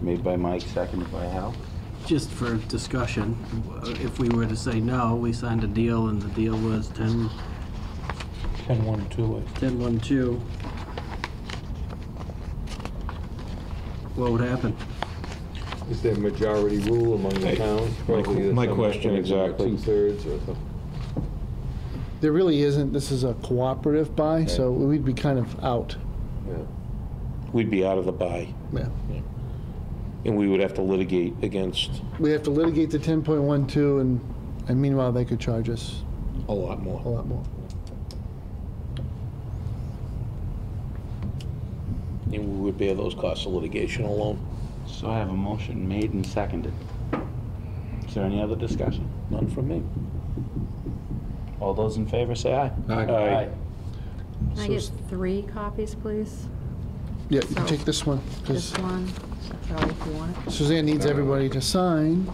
Made by Mike, seconded by Hal. Just for discussion, if we were to say no, we signed a deal and the deal was 10, 10, 1, 2, 10, 1, 2. What would happen? Is there majority rule among the towns? Probably my there's question something like exactly. Two-thirds or something. There really isn't, this is a cooperative buy, so we'd be kind of out. Yeah. we'd be out of the buy, Yeah. and we would have to litigate against We have to litigate the 10.12, and and meanwhile, they could charge us a lot a more. lot more. And we would bear those costs of litigation alone, So I have a motion made and seconded. Is there any other discussion? none from me. All those in favor say aye. Aye. Can I get three copies, please? Yeah, you So- take this one, because This one, Charlie, if you want it. Suzanne needs everybody to sign,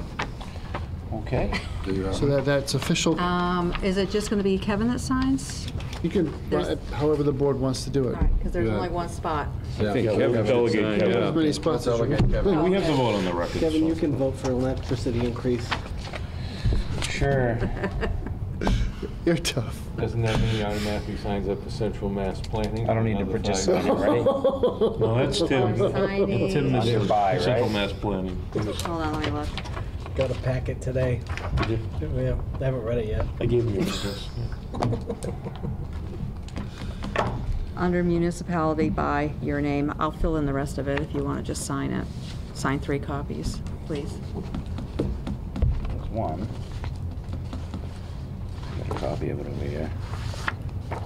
Okay. so that that's official. Um, Is it just going to be Kevin that signs? You can, There's- however the board wants to do it. Because there's only one spot. Kevin, delegate As many spots as you We have the vote. on the record. Kevin, you can vote for electricity increase. Sure. You're tough. Doesn't that mean he automatically signs up for central mass planning? I don't need to Another five participate, years? right? No, that's Tim. Tim Signing. is Under buy, right? Central Mass Planning. Hold on, let me look. Got a packet today. Yeah, I haven't read it yet. I gave him your address. Under municipality by your name. I'll fill in the rest of it if you want to just sign it. Sign three copies, please. There's one. Got a copy of it over here. I'll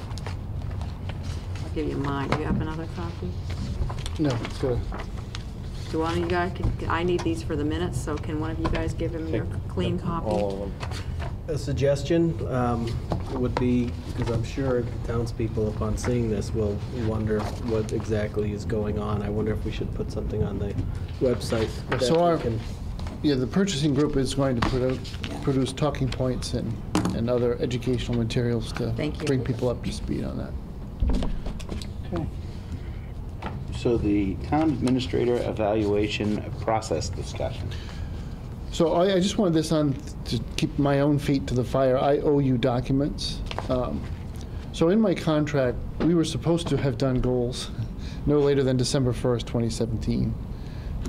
give you mine. Do you have another copy? No, it's good. Do one of you guys, can- I need these for the minutes, so can one of you guys give him your clean copy? All of them. A suggestion um, would be, because I'm sure the townspeople upon seeing this will wonder what exactly is going on. I wonder if we should put something on the website. that So our- we can- Yeah, the purchasing group is going to produ- produce talking points and, and other educational materials to Thank you. bring people up to speed on that. Okay. So the town administrator evaluation process discussion. So I, I just wanted this on to keep my own feet to the fire. I owe you documents. Um, So in my contract, we were supposed to have done goals no later than December 1st, 2017,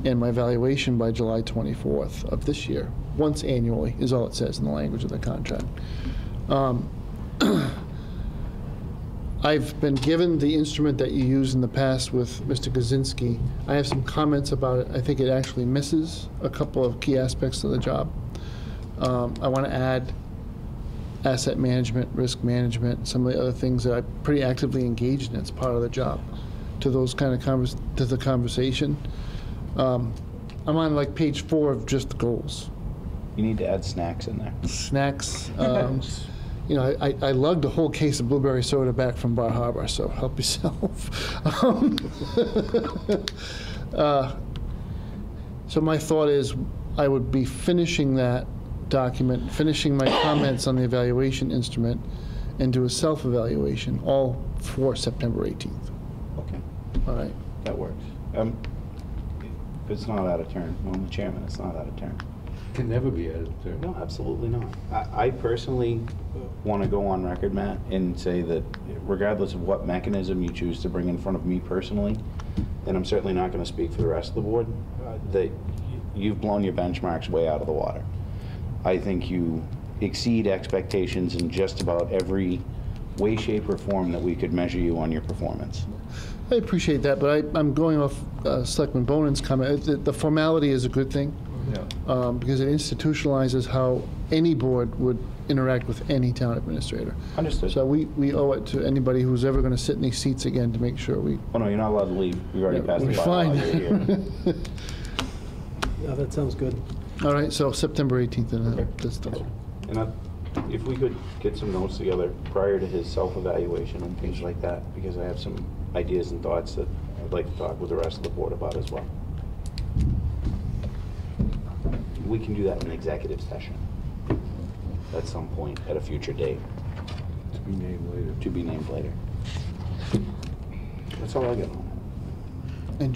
and my valuation by July 24th of this year, once annually, is all it says in the language of the contract. Um, I've been given the instrument that you used in the past with Mr. Kaczynski. I have some comments about it. I think it actually misses a couple of key aspects of the job. Um, I want to add asset management, risk management, some of the other things that I pretty actively engaged in. It's part of the job to those kind of convers, to the conversation. Um, I'm on like page four of just the goals. You need to add snacks in there. Snacks, um, you know, I, I lugged a whole case of blueberry soda back from Bar Harbor, so help yourself. Um, uh, so my thought is, I would be finishing that document, finishing my comments on the evaluation instrument, and do a self-evaluation, all for September 18th. Okay. All right. That works. Um, if it's not out of turn, I'm the chairman, it's not out of turn. Can never be added to. No, absolutely not. I, I personally want to go on record, Matt, and say that regardless of what mechanism you choose to bring in front of me personally, and I'm certainly not going to speak for the rest of the board, uh, that you've blown your benchmarks way out of the water. I think you exceed expectations in just about every way, shape, or form that we could measure you on your performance. I appreciate that, but I, I'm going off uh, Selectman Bonan's comment. The, the formality is a good thing um, because it institutionalizes how any board would interact with any town administrator. Understood. So we, we owe it to anybody who's ever going to sit in these seats again to make sure we. Oh, no, you're not allowed to leave. We've already passed the we're bylaw. You're here. fine. Oh, That sounds good. All right, so September 18th and uh, Okay. this stuff. And I- if we could get some notes together prior to his self-evaluation and things like that, because I have some ideas and thoughts that I'd like to talk with the rest of the board about as well. We can do that in executive session at some point, at a future date, To be named later. to be named later. That's all I got on